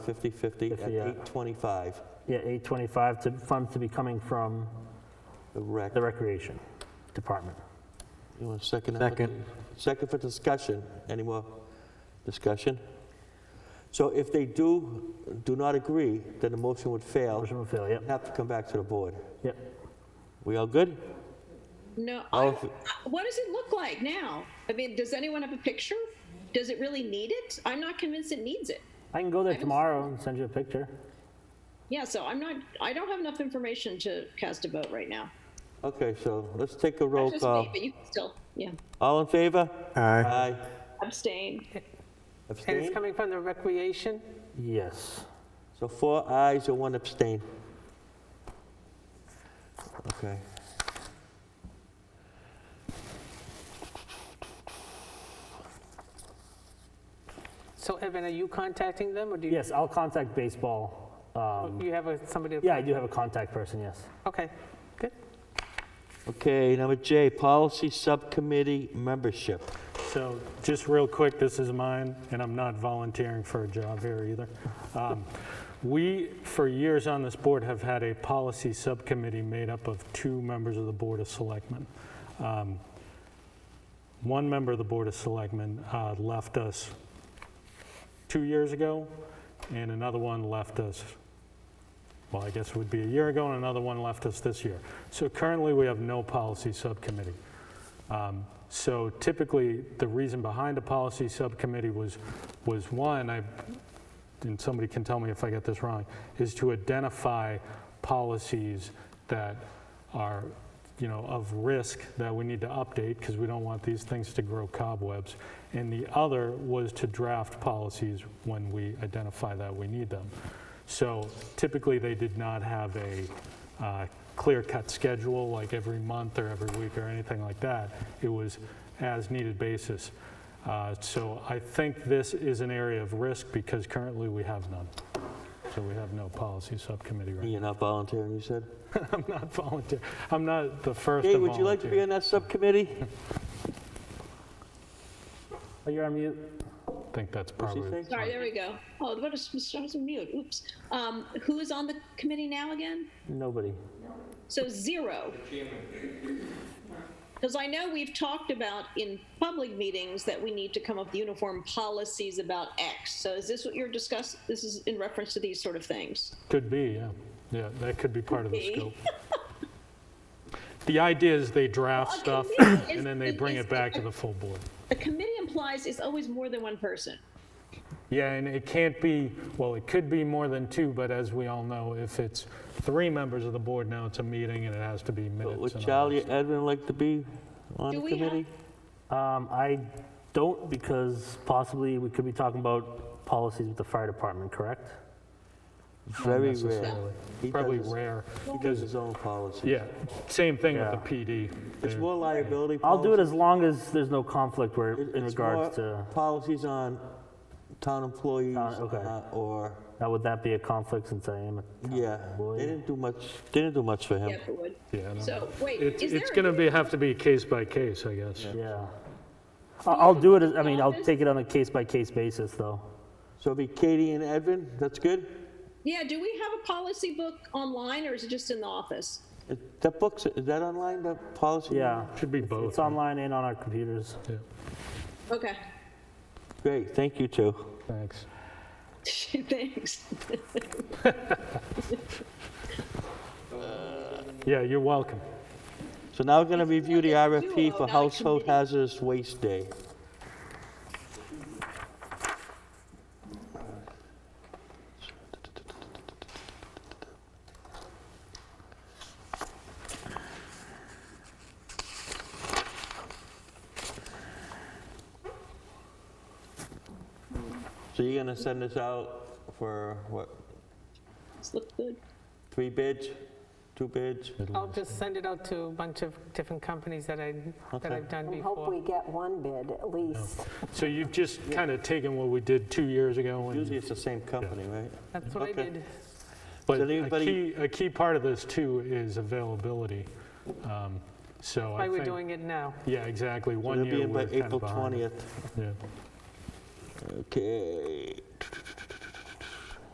50/50 at Fifty, yeah. 825, Yeah, 825 to, funds to be coming from the rec. the Recreation Department. You want a second? Second. Second for discussion. Any more discussion? So if they do, do not agree, then the motion would fail. Motion will fail, yep, Have to come back to the board. yep. We all good? No, All I, of it. I- what does it look like now? I mean, does anyone have a picture? Does it really need it? I'm not convinced it needs it. I can go there tomorrow and send you a picture. Yeah, so I'm not, I don't have enough information to cast a vote right now. Okay, so let's take a roll Just me, call. but you can still, yeah, All in favor? Aye. Aye. abstain. And it's Abstain? coming from the recreation? Yes. So four ayes or one abstain. Okay. So Evan, are you contacting them, or do you? Yes, I'll contact baseball. Um, You have a- somebody? to- Yeah, I do have a contact person, yes. Okay, good. Okay, number J, policy subcommittee membership. So just real quick, this is mine, and I'm not volunteering for a job here either. Um, We, for years on this board, have had a policy subcommittee made up of two members of the Board of Selectmen. Um, One member of the Board of Selectmen uh, left us two years ago, and another one left us, well, I guess it would be a year ago, and another one left us this year. So currently, we have no policy subcommittee. Um, So typically, the reason behind a policy subcommittee was, was one, I, and somebody can tell me if I get this wrong, is to identify policies that are, you know, of risk that we need to update because we don't want these things to grow cobwebs. And the other was to draft policies when we identify that we need them. So typically, they did not have a uh, clear-cut schedule, like every month or every week or anything like that. It was as-needed basis. Uh, So I think this is an area of risk because currently we have none. So we have no policy subcommittee right now. You're not volunteering, you said? I'm not volunteer, I'm not the first to Jay, volunteer. would you like to be on that subcommittee? Oh, you're on mute? I think that's What's he probably, think? Sorry, there we go. Oh, what a, I was on mute, oops. Um, who is on the committee now again? Nobody. So zero. Because I know we've talked about in public meetings that we need to come up with uniform policies about X. So is this what you're discussing? This is in reference to these sort of things. could be, yeah. Yeah, that could be part of the Could be. scope. The idea is they draft Okay, stuff maybe it's- and then they bring it's- it back to the full board. A committee implies it's always more than one person. Yeah, and it can't be, well, it could be more than two, but as we all know, if it's three members of the board now, it's a meeting and it has to be minutes. Would and all Charlie that or Edwin like to be on Do the we have- committee? Um, I don't because possibly we could be talking about policies with the fire department, correct? Very stuff rare. necessarily. He does Probably his- rare. He does his own policy. Yeah, same thing Yeah. with the PD. It's They're- more liability policy. I'll do it as long as there's no conflict where, It- in it's regards more to, Policies on town employees Town- okay. uh, or, now would that be a conflict since I am a yeah, employee. they didn't do much, they didn't do much for Yeah, him. it would. Yeah, I don't know. So wait, It's, is there? it's a- gonna be, have to be case by case, I guess. Yeah. I- I'll do it, as- I mean, I'll Office? take it on a case-by-case basis, though. So it'd be Katie and Edwin, that's good? Yeah, do we have a policy book online or is it just in the office? It- That book's, is that online, the policy? Yeah. Should be It's- both, It's right? online and on our computers. Yeah, Okay, Great, thank you two. thanks. thanks. Yeah, you're welcome. So now we're going to review the like a RFP duo, for not a Household committee. Hazardous Waste Day. So you're going to send this out for, what, This looked good. three bids? Two bids? I'll just send it out to a bunch of different companies that I, that Okay. I've done Hope before. we get one bid at least. So you've just kind of taken what we did two years ago and Usually it's the same company, right? That's what I Okay. did. But Does a anybody- key, a key part of this too is availability. Um, So I Why we're think. doing it now. Yeah, exactly. So One They'll be year in by we're kind April of behind. 20th. Yeah. Okay.